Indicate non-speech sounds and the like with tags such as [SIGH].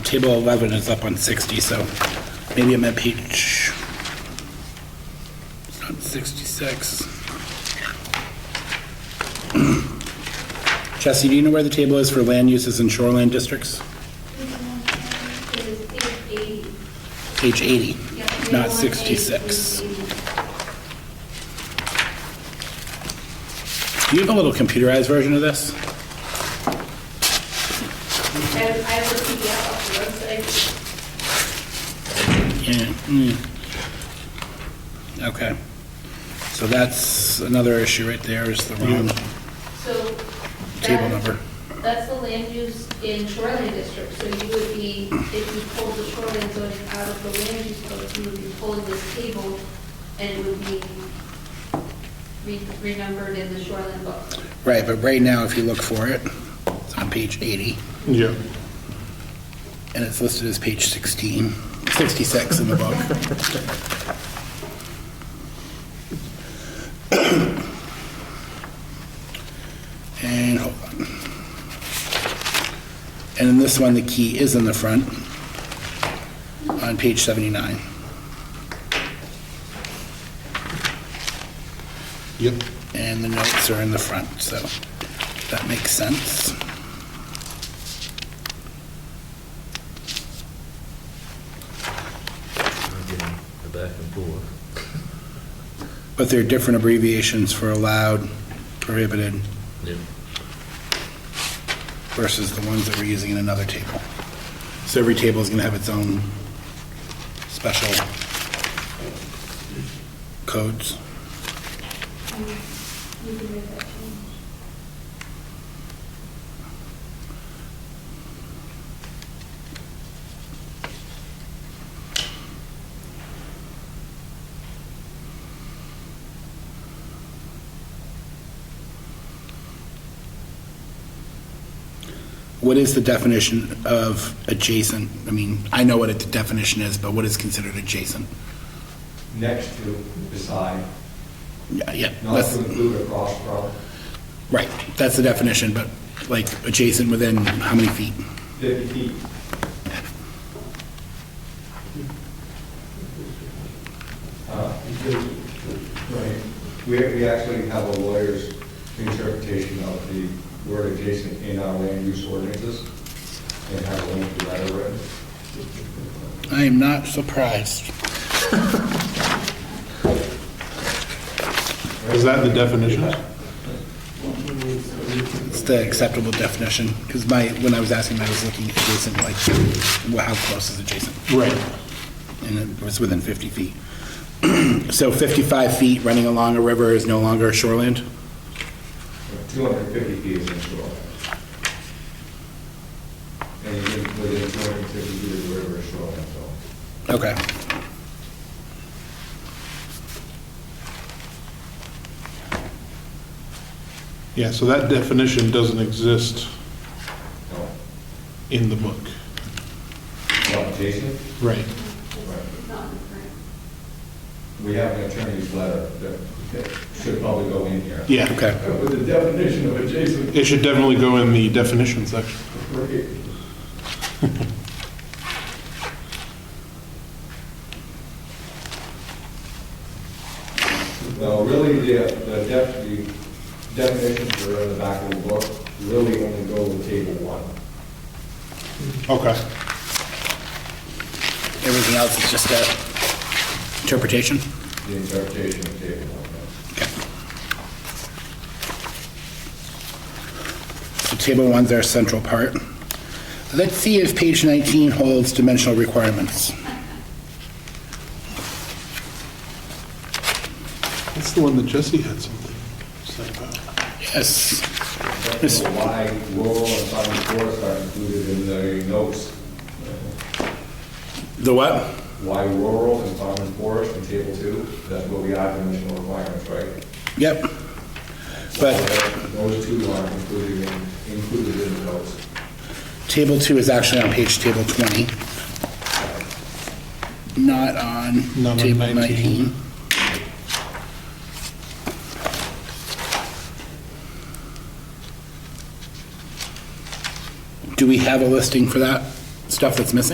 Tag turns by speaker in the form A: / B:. A: Table 11 is up on 60, so maybe I'm at page, it's not 66. Chelsea, do you know where the table is for land uses in shoreline districts?
B: is eight eighty.
A: Page 80,
B: Yeah, we
A: not
B: want
A: 66.
B: 880.
A: Do you have a little computerized version of this?
B: I have, I have a PDF off the website.
A: Yeah. mm. Okay. So that's another issue right there, is the wrong
B: So.
A: table
B: that-
A: number.
B: That's the land use in shoreline district, so you would be, if you pulled the shoreline zoning out of the land use code, you would be pulling this table and it would be re- renumbered in the shoreline book.
A: Right, but right now, if you look for it, it's on page 80,
C: Yeah.
A: and it's listed as page 16, 66 in the book. And hold on. And in this one, the key is in the front on page 79.
C: Yep.
A: and the notes are in the front, so that makes sense.
D: I'm getting the back and forth.
A: But there are different abbreviations for allowed, prohibited,
D: Yeah.
A: versus the ones that we're using in another table. So every table is going to have its own special codes.
B: You can make that change.
A: What is the definition of adjacent? I mean, I know what the definition is, but what is considered adjacent?
E: next to, beside,
A: Yeah, yeah.
E: not
A: that's-
E: to include across from,
A: Right, that's the definition, but like adjacent within how many feet?
E: 50 feet. Uh, right. We, we actually have a lawyer's interpretation of the word adjacent in our land use ordinances and have a link to that already.
A: I am not surprised.
C: Is that the definition?
A: It's the acceptable definition, because my, when I was asking, I was looking at adjacent, like, well, how close is adjacent?
C: Right.
A: And it was within 50 feet. [CLEARS THROAT] So 55 feet running along a river is no longer shoreland?
E: 250 feet is inshore. And you can, within 250 feet of the river is shoreline zone.
A: Okay.
C: Yeah, so that definition doesn't exist
E: No,
C: in the book.
E: not adjacent?
C: Right.
B: It's not in the current.
E: We have an attorney's letter that that should probably go in here.
C: Yeah.
A: Okay.
E: With the definition of adjacent.
C: It should definitely go in the definition section.
E: No, really, the, the def, the definitions that are in the back of the book really only go with table one.
C: Okay.
A: Everything else is just a interpretation?
E: the interpretation of table one.
A: Okay. So table one's our central part. Let's see if page 19 holds dimensional requirements.
C: That's the one that Jesse had something to say about.
A: Yes.
E: So why rural and farm forests are included in the notes?
A: The what?
E: Why rural and farm and forest in table two? That's what we add dimensional requirements, right?
A: Yep. But
E: Those two aren't included in, included in the notes.
A: table two is actually on page table 20. Not on
C: Not on
A: table
C: 19.
A: 19. Do we have a listing for that? stuff that's missing?